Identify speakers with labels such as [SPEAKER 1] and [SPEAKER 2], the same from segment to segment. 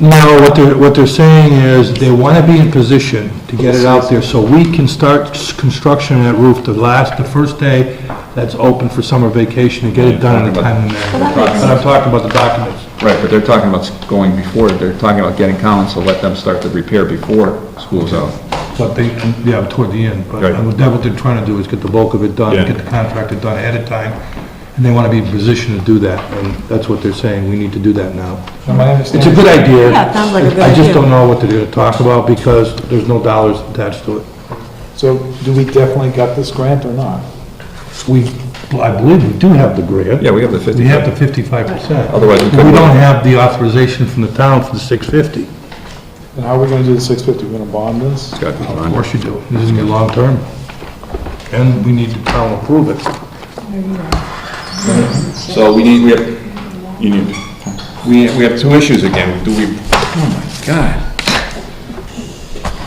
[SPEAKER 1] Now, what they're, what they're saying is they want to be in position to get it out there so we can start s- construction of that roof the last, the first day that's open for summer vacation and get it done in a timely manner. But I'm talking about the documents.
[SPEAKER 2] Right, but they're talking about going before, they're talking about getting Collins to let them start the repair before school's out.
[SPEAKER 1] But they, yeah, toward the end, but
[SPEAKER 2] Right.
[SPEAKER 1] that's what they're trying to do, is get the bulk of it done,
[SPEAKER 3] Yeah.
[SPEAKER 1] get the contractor done ahead of time, and they want to be in position to do that, and that's what they're saying, we need to do that now. It's a good idea.
[SPEAKER 4] Yeah, it sounds like a good
[SPEAKER 1] I just
[SPEAKER 4] idea.
[SPEAKER 1] don't know what they're going to talk about, because there's no dollars attached to it.
[SPEAKER 5] So do we definitely got this grant or not?
[SPEAKER 1] We, I believe we do have the grant.
[SPEAKER 2] Yeah, we have the
[SPEAKER 1] We
[SPEAKER 2] 50.
[SPEAKER 1] have the fifty-five percent.
[SPEAKER 2] Otherwise, we
[SPEAKER 1] We
[SPEAKER 2] couldn't-
[SPEAKER 1] don't have the authorization from the town for the six fifty.
[SPEAKER 5] And how are we gonna do the six fifty? We're gonna bond this?
[SPEAKER 2] It's got to be
[SPEAKER 1] Of
[SPEAKER 2] done.
[SPEAKER 1] course you do. This is gonna be long-term. And we need the town to approve it.
[SPEAKER 3] So we need, we have, you need, we, we have two issues again. Do we, oh my God.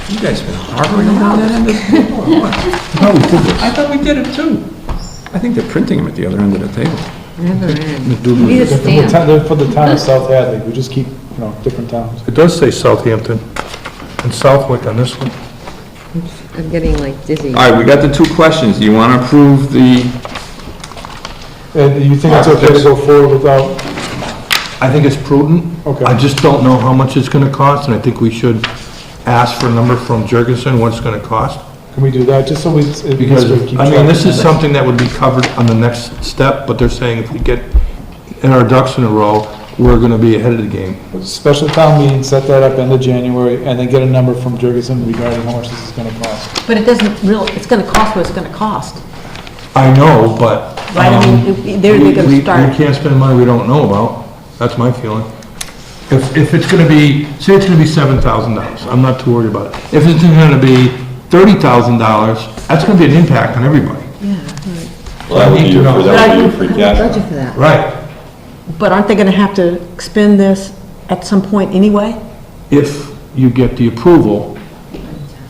[SPEAKER 3] You guys been harboring around that end of, what?
[SPEAKER 1] No, we did this.
[SPEAKER 3] I thought we did it too. I think they're printing them at the other end of the table.
[SPEAKER 4] Need a
[SPEAKER 5] For the
[SPEAKER 4] stamp.
[SPEAKER 5] town- they're For the town of South Hadley, we just keep, you know, different towns.
[SPEAKER 1] It does say Southampton and Southwick on this one.
[SPEAKER 4] I'm getting like dizzy.
[SPEAKER 2] All right, we got the two questions. Do you want to approve the,
[SPEAKER 5] And you think it's okay to go forward without,
[SPEAKER 1] I think it's prudent.
[SPEAKER 5] Okay.
[SPEAKER 1] I just don't know how much it's gonna cost, and I think we should ask for a number from Jurgensen, what it's gonna cost.
[SPEAKER 5] can we do that, just so we, it- so we keep
[SPEAKER 1] Because, I
[SPEAKER 5] track
[SPEAKER 1] mean,
[SPEAKER 5] of
[SPEAKER 1] this is
[SPEAKER 5] it?
[SPEAKER 1] something that would be covered on the next step, but they're saying if we get in our ducks in a row, we're gonna be ahead of the game.
[SPEAKER 5] Special town meeting, set that up end of January, and then get a number from Jurgensen regarding how much this is gonna cost.
[SPEAKER 4] But it doesn't really, it's gonna cost what it's gonna cost.
[SPEAKER 1] I know, but.
[SPEAKER 4] Right, I mean,
[SPEAKER 1] um,
[SPEAKER 4] if- they're- they're
[SPEAKER 1] we-
[SPEAKER 4] gonna
[SPEAKER 1] we- We
[SPEAKER 4] start.
[SPEAKER 1] can't spend money we don't know about, that's my feeling. If, if it's gonna be, say it's gonna be seven thousand dollars, I'm not too worried about it. If it's gonna be thirty thousand dollars, that's gonna be an impact on everybody.
[SPEAKER 6] Well, that would be your, that would be your free cash.
[SPEAKER 4] Budget for that.
[SPEAKER 1] Right.
[SPEAKER 4] But aren't they gonna have to expend this at some point anyway?
[SPEAKER 1] If you get the approval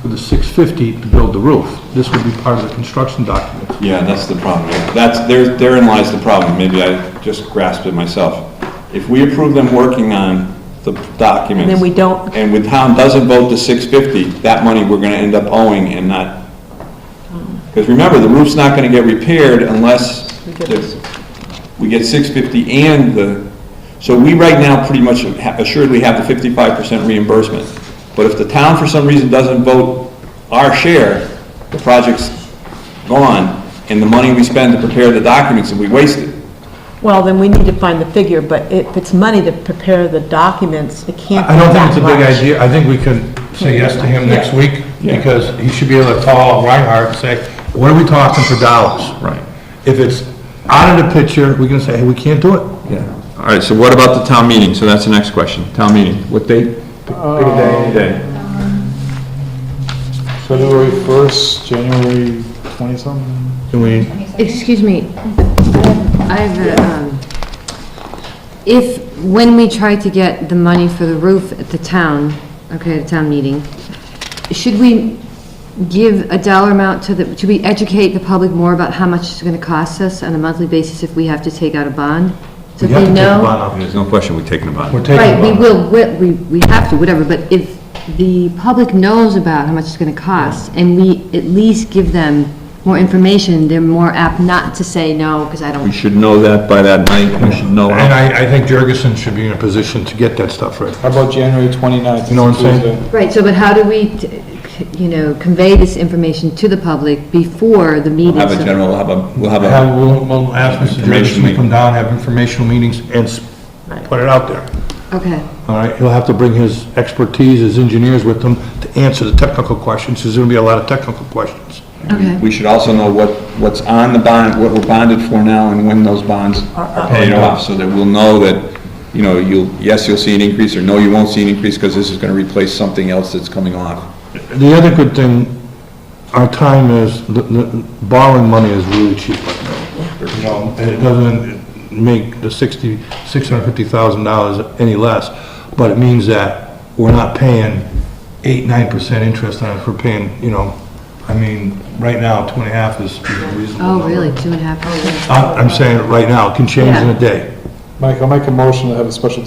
[SPEAKER 1] for the six fifty to build the roof, this would be part of the construction document.
[SPEAKER 6] Yeah, that's the problem. yeah. That's, there, therein lies the problem. Maybe I just grasped it myself. If we approve them working on the documents.
[SPEAKER 4] Then we don't-
[SPEAKER 6] And when town doesn't vote the six fifty, that money we're gonna end up owing and not. Because remember, the roof's not gonna get repaired unless the- we get six fifty and the, so we right now pretty much ha- assuredly have the fifty-five percent reimbursement. But if the town for some reason doesn't vote our share, the project's gone, and the money we spend to prepare the documents, and we waste it.
[SPEAKER 4] Well, then we need to find the figure, but if it's money to prepare the documents, it can't be
[SPEAKER 1] I don't think
[SPEAKER 4] that
[SPEAKER 1] it's a big
[SPEAKER 4] much.
[SPEAKER 1] idea, I think we can say yes to him next week,
[SPEAKER 6] Yeah.
[SPEAKER 1] because he should be able to call Reinhardt and say, what are we talking for dollars?
[SPEAKER 2] Right.
[SPEAKER 1] If it's out of the picture, we can say, hey, we can't do it.
[SPEAKER 2] yeah. All right, so what about the town meeting? So that's the next question. Town meeting, what date?
[SPEAKER 6] Day.
[SPEAKER 5] February first, January twenty-something?
[SPEAKER 1] Can we,
[SPEAKER 7] Excuse me, I have, a, um, if, when we try to get the money for the roof at the town, okay, the town meeting, should we give a dollar amount to the, should we educate the public more about how much it's gonna cost us on a monthly basis if we have to take out a bond? So
[SPEAKER 1] we have
[SPEAKER 7] they
[SPEAKER 1] to take
[SPEAKER 7] know-
[SPEAKER 1] the bond out.
[SPEAKER 2] There's no question we're taking about
[SPEAKER 1] We're
[SPEAKER 2] it.
[SPEAKER 1] taking
[SPEAKER 7] Right, we
[SPEAKER 1] the bond.
[SPEAKER 7] will, we- we, we have to, whatever, but if the public knows about how much it's gonna cost, and we at least give them more information, they're more apt not to say no, because I
[SPEAKER 2] We
[SPEAKER 7] don't,
[SPEAKER 2] should know that by that night, we should know.
[SPEAKER 1] And I, I think Jurgensen should be in a position to get that stuff right.
[SPEAKER 5] How about January 29th?
[SPEAKER 1] You know what I'm saying?
[SPEAKER 5] Tuesday.
[SPEAKER 7] right, so, but how do we, t- you know, convey this information to the public before the meeting?
[SPEAKER 6] We'll have a
[SPEAKER 7] so-
[SPEAKER 6] general, we'll have a, we'll have a,
[SPEAKER 1] Have, we'll, we'll ask Mr. Jurgensen to
[SPEAKER 6] Information
[SPEAKER 1] come down, have informational meetings, and s- put it out there.
[SPEAKER 7] Okay,
[SPEAKER 1] All right, he'll have to bring his expertise, his engineers with him to answer the technical questions, there's gonna be a lot of technical questions.
[SPEAKER 7] okay,
[SPEAKER 6] we should also know what, what's on the bond, what we're bonded for now, and when those bonds are paid off, so that we'll know that, you know, you'll, yes, you'll see an increase, or no, you won't see an increase, because this is gonna replace something else that's coming off.
[SPEAKER 1] The other good thing, our time is, the- the- borrowing money is really cheap right now. You know, It doesn't make the sixty, six hundred fifty thousand dollars any less, but it means that we're not paying eight, nine percent interest on it, we're paying, you know, I mean, right now, two and a half is a reasonable.
[SPEAKER 7] oh,
[SPEAKER 1] number.
[SPEAKER 7] really, two and a half hours?
[SPEAKER 1] I'm, I'm saying it right now, it can change in a day.
[SPEAKER 5] Mike, I'll make a motion to have a special